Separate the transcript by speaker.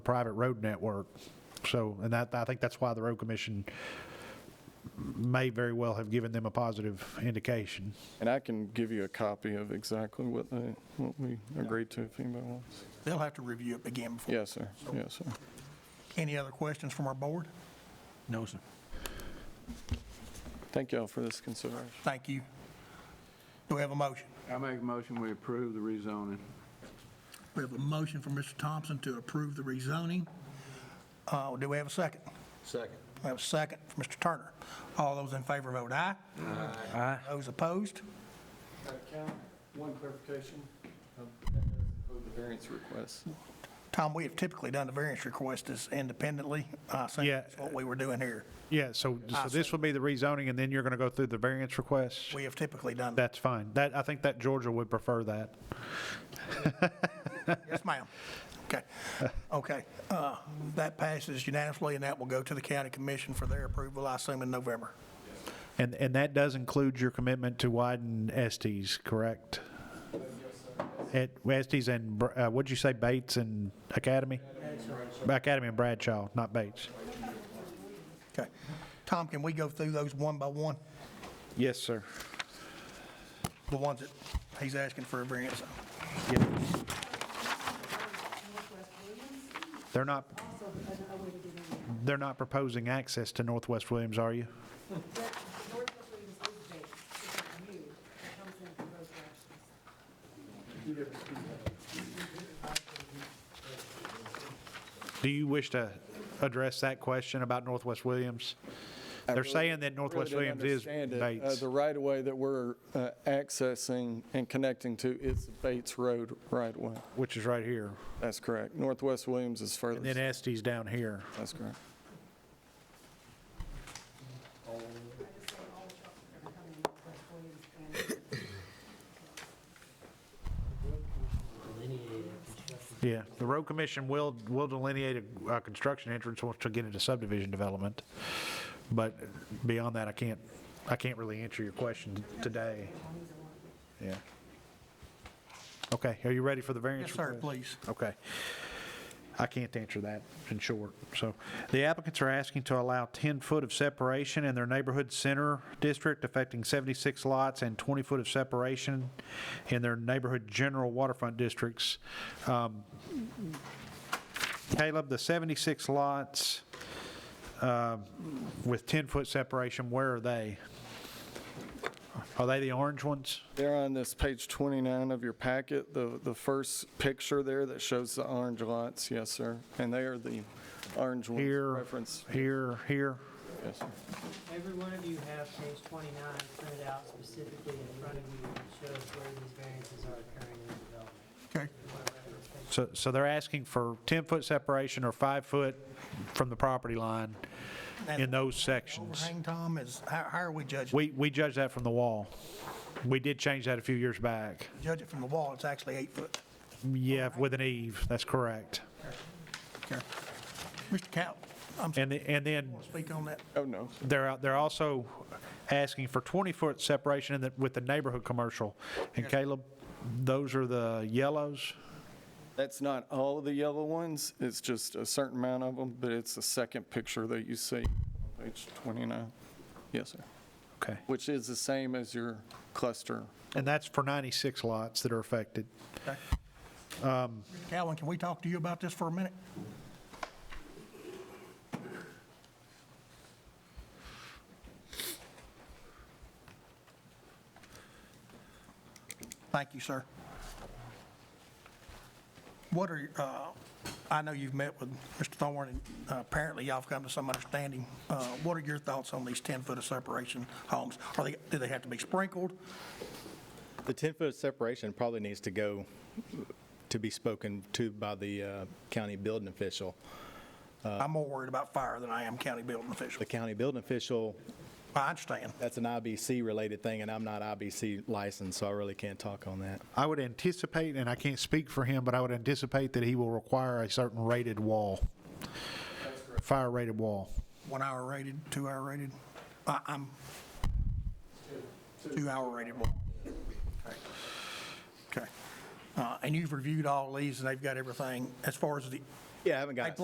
Speaker 1: private road network. So, and that, I think that's why the road commission may very well have given them a positive indication.
Speaker 2: And I can give you a copy of exactly what they, what we agreed to if anybody wants.
Speaker 3: They'll have to review it again before.
Speaker 2: Yes, sir. Yes, sir.
Speaker 3: Any other questions from our board?
Speaker 4: No, sir.
Speaker 2: Thank y'all for this consideration.
Speaker 3: Thank you. Do we have a motion?
Speaker 5: I make a motion, we approve the rezoning.
Speaker 3: We have a motion from Mr. Thompson to approve the rezoning. Uh, Do we have a second?
Speaker 5: Second.
Speaker 3: We have a second from Mr. Turner. All those in favor vote aye. Aye. Those opposed?
Speaker 2: Uh, One clarification. Um, The variance request.
Speaker 3: Tom, we have typically done the variance request as independently. I think
Speaker 1: Yeah.
Speaker 3: that's what we were doing here.
Speaker 1: Yeah, so, so this will be the rezoning, and then you're going to go through the variance requests?
Speaker 3: We have typically done that.
Speaker 1: That's fine. That, I think that Georgia would prefer that.
Speaker 3: Yes, ma'am. Okay, okay. Uh, That passes unanimously, and that will go to the county commission for their approval, I assume, in November.
Speaker 1: And, and that does include your commitment to widen Estes, correct? At Estes and, Br- uh, what'd you say, Bates and Academy? Academy and Bradshaw, not Bates.
Speaker 3: Okay. Tom, can we go through those one by one?
Speaker 1: Yes, sir.
Speaker 3: The ones that he's asking for a variance on?
Speaker 1: They're not, they're not proposing access to Northwest Williams, are you? Do you wish to address that question about Northwest Williams? They're saying that Northwest
Speaker 2: Really didn't
Speaker 1: Williams is
Speaker 2: understand it. Uh,
Speaker 1: Bates.
Speaker 2: The right-of-way that we're uh, accessing and connecting to is the Bates Road right-of-way.
Speaker 1: which is right here.
Speaker 2: That's correct. Northwest Williams is
Speaker 1: And then
Speaker 2: further.
Speaker 1: Estes down here.
Speaker 2: That's correct.
Speaker 1: Yeah, the road commission will, will delineate a, a construction entrance once we get into subdivision development. But beyond that, I can't, I can't really answer your question today. Yeah. Okay, are you ready for the variance?
Speaker 3: Yes, sir,
Speaker 1: request?
Speaker 3: please.
Speaker 1: Okay. I can't answer that in short. So the applicants are asking to allow 10-foot of separation in their neighborhood center district affecting 76 lots and 20-foot of separation in their neighborhood general waterfront districts. Um, Caleb, the 76 lots uh, with 10-foot separation, where are they? Are they the orange ones?
Speaker 2: They're on this page 29 of your packet, the, the first picture there that shows the orange lots, yes, sir. And they are the orange ones
Speaker 1: Here.
Speaker 2: referenced,
Speaker 1: Here, here?
Speaker 2: yes, sir.
Speaker 6: Every one of you have page 29 printed out specifically in front of you that shows where these variances are occurring in the development.
Speaker 3: Okay.
Speaker 1: So, so they're asking for 10-foot separation or five-foot from the property line in those sections.
Speaker 3: Overhang, Tom, is, how, how are we judging?
Speaker 1: We, we judge that from the wall. We did change that a few years back.
Speaker 3: Judge it from the wall, it's actually eight foot.
Speaker 1: Yeah, with an eave, that's correct.
Speaker 3: Okay. Mr. Cal, I'm sorry,
Speaker 1: And, the- and then
Speaker 3: speak on that.
Speaker 2: Oh, no.
Speaker 1: they're, out- they're also asking for 20-foot separation in the, with the neighborhood commercial. And Caleb, those are the yellows?
Speaker 2: That's not all of the yellow ones, it's just a certain amount of them, but it's the second picture that you see, page 29. Yes, sir.
Speaker 1: Okay.
Speaker 2: Which is the same as your cluster.
Speaker 1: And that's for 96 lots that are affected.
Speaker 3: Mr. Calvin, can we talk to you about this for a minute? Thank you, sir. What are, your- uh, I know you've met with Mr. Thorne, and uh, apparently y'all have come to some understanding. Uh, What are your thoughts on these 10-foot of separation homes? Are they, do they have to be sprinkled?
Speaker 7: The 10-foot separation probably needs to go to be spoken to by the uh, county building official.
Speaker 3: I'm more worried about fire than I am county building official.
Speaker 7: The county building official,
Speaker 3: I understand.
Speaker 7: that's an IBC-related thing, and I'm not IBC licensed, so I really can't talk on that.
Speaker 1: I would anticipate, and I can't speak for him, but I would anticipate that he will require a certain rated wall. Fire rated wall.
Speaker 3: One hour rated, two hour rated? I, I'm, two hour rated one. Okay. Uh, and you've reviewed all these and they've got everything. As far as the
Speaker 7: Yeah, I haven't got
Speaker 3: I
Speaker 7: it.